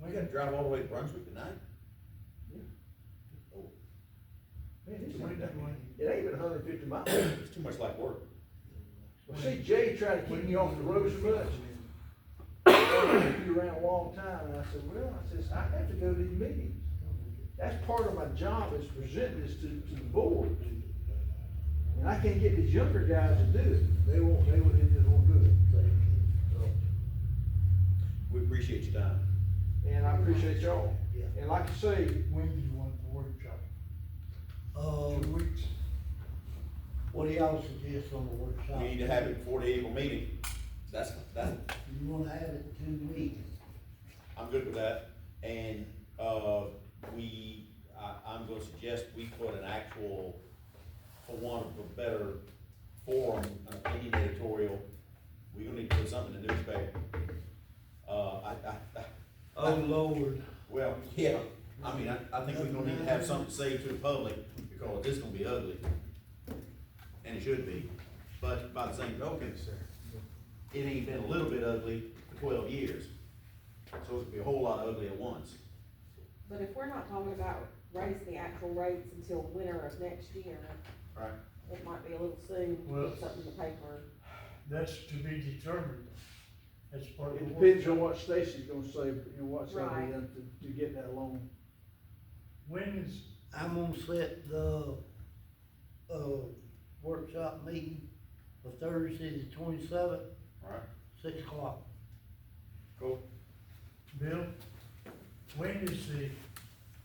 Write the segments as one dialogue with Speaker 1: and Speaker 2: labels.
Speaker 1: We gotta drive all the way to Brunswick tonight?
Speaker 2: Yeah.
Speaker 1: Oh,
Speaker 2: Man,
Speaker 1: it's not that way.
Speaker 2: It ain't even hundred fifty miles.
Speaker 1: it's too much like work.
Speaker 2: Well, see, Jay tried to keep me off the road so much. You around a long time, and I said, well, I says, I have to go to these meetings. That's part of my job is present this to, to the board. And I can't get these younger guys to do it. They won't, they won't, they just won't do it. So,
Speaker 1: We appreciate your time.
Speaker 2: And I appreciate y'all.
Speaker 3: Yeah.
Speaker 2: And like I say,
Speaker 4: When do you want the workshop? Two
Speaker 3: Uh,
Speaker 4: weeks?
Speaker 3: what do y'all suggest on the workshop?
Speaker 1: We need to have it before the April meeting. That's, that's,
Speaker 3: You wanna have it two weeks?
Speaker 1: I'm good with that. And, uh, we, I, I'm gonna suggest we put an actual, for want of a better forum, an opinion editorial. We're gonna need to put something in the newspaper. Uh, I, I, I,
Speaker 3: Oh, Lord.
Speaker 1: well, yeah, I mean, I, I think we're gonna need to have something to say to the public, because this gonna be ugly. And it should be, but by the same token, it ain't been a little bit ugly for twelve years. So it's gonna be a whole lot ugly at once.
Speaker 5: But if we're not talking about raising the actual rates until winter of next year,
Speaker 1: Right.
Speaker 5: it might be a little soon to
Speaker 4: Well-
Speaker 5: put something in the paper.
Speaker 4: That's to be determined. That's part of the
Speaker 2: it
Speaker 4: work.
Speaker 2: depends on what Stacy's gonna say, you know, what's gonna be
Speaker 5: Right.
Speaker 2: done to, to get that loan.
Speaker 4: When is,
Speaker 3: I'm gonna set the, uh, workshop meeting for Thursday, the twenty-seventh,
Speaker 1: Alright,
Speaker 3: six o'clock.
Speaker 1: cool.
Speaker 4: Bill, when is the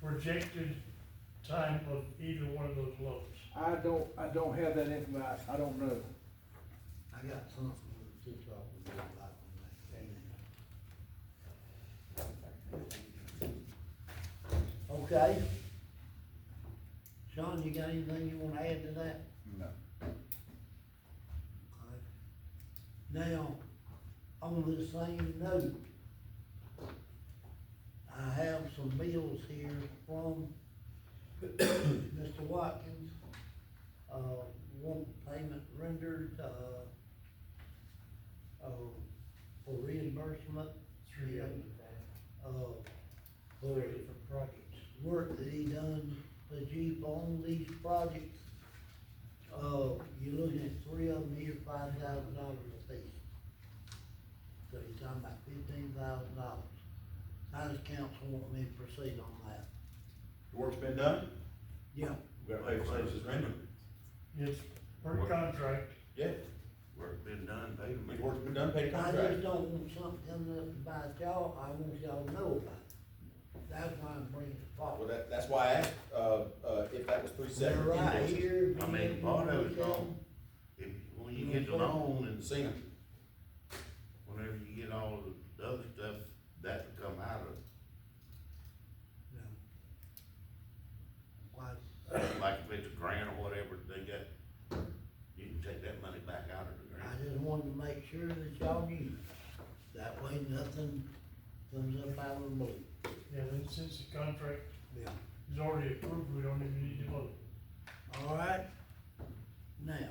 Speaker 4: projected time of either one of those loads?
Speaker 2: I don't, I don't have that information, I don't know.
Speaker 3: I got something to just talk about on that. Okay. Sean, you got anything you wanna add to that?
Speaker 1: No.
Speaker 3: Now, on the same note, I have some bills here from Mr. Watkins. Uh, one payment rendered, uh, uh, for reimbursement.
Speaker 4: Three of them.
Speaker 3: Uh,
Speaker 4: Three
Speaker 3: for
Speaker 4: different projects.
Speaker 3: work that he done for Jeep on these projects. Uh, you're looking at three of them here, five thousand dollars a piece. So you're talking about fifteen thousand dollars. How does council want me to proceed on that?
Speaker 1: The work's been done?
Speaker 3: Yeah.
Speaker 1: We gotta pay for services rendered.
Speaker 4: It's per contract.
Speaker 1: Yeah,
Speaker 6: Work been done, paid them.
Speaker 1: the work's been done, paid the
Speaker 3: I just
Speaker 1: contract.
Speaker 3: don't want something coming up about y'all, I want y'all to know about it. That's why I'm bringing it
Speaker 1: Well,
Speaker 3: forward.
Speaker 1: that, that's why I asked, uh, uh, if that was three
Speaker 3: They're
Speaker 1: separate
Speaker 3: right
Speaker 1: invoices.
Speaker 3: here.
Speaker 6: I mean, part of it's on, if, when you get the loan and
Speaker 1: See 'em.
Speaker 6: whenever you get all of the other stuff, that will come out
Speaker 3: No. Why,
Speaker 6: of, like if it's a grant or whatever they got, you can take that money back out of the grant.
Speaker 3: I just wanted to make sure that y'all knew. That way nothing comes up out of the blue.
Speaker 4: Yeah, then since the contract
Speaker 3: Yeah.
Speaker 4: is already approved, we don't even need to vote.
Speaker 3: All right? Now.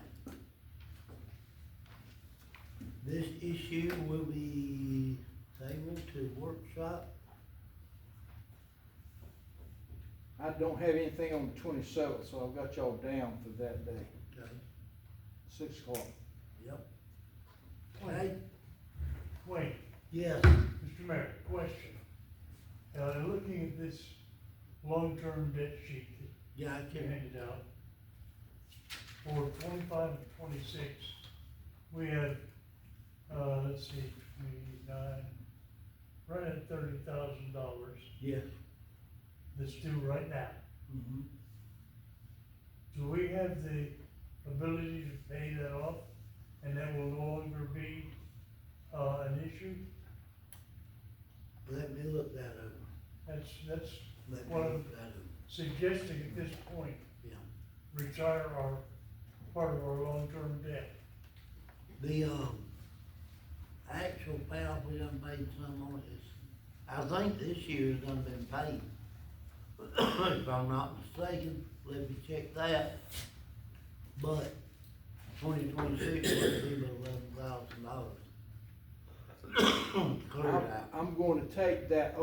Speaker 3: This issue will be tabled to workshop.
Speaker 2: I don't have anything on the twenty-seventh, so I've got y'all down for that day,
Speaker 3: Okay.
Speaker 2: six o'clock.
Speaker 3: Yep. Okay,
Speaker 4: Wait,
Speaker 3: yes,
Speaker 4: Mr. Mayor, question. Uh, looking at this long-term debt sheet that
Speaker 3: yeah, I
Speaker 4: you
Speaker 3: can,
Speaker 4: handed out. For twenty-five and twenty-six, we had, uh, let's see, twenty-nine, right at thirty thousand dollars
Speaker 3: yes.
Speaker 4: that's due right now.
Speaker 3: Mhm.
Speaker 4: Do we have the ability to pay that off and that will no longer be, uh, an issue?
Speaker 3: Let me look that over.
Speaker 4: That's, that's
Speaker 3: Let me
Speaker 4: Well-
Speaker 3: look that over,
Speaker 4: suggesting at this point,
Speaker 3: yeah.
Speaker 4: retire our, part of our long-term debt.
Speaker 3: The, um, actual payoff, we done paid some on this, I think this year's done been paid. If I'm not mistaken, let me check that. But twenty twenty-six would be about eleven thousand dollars. Clear it out.
Speaker 2: I'm- I'm going to take that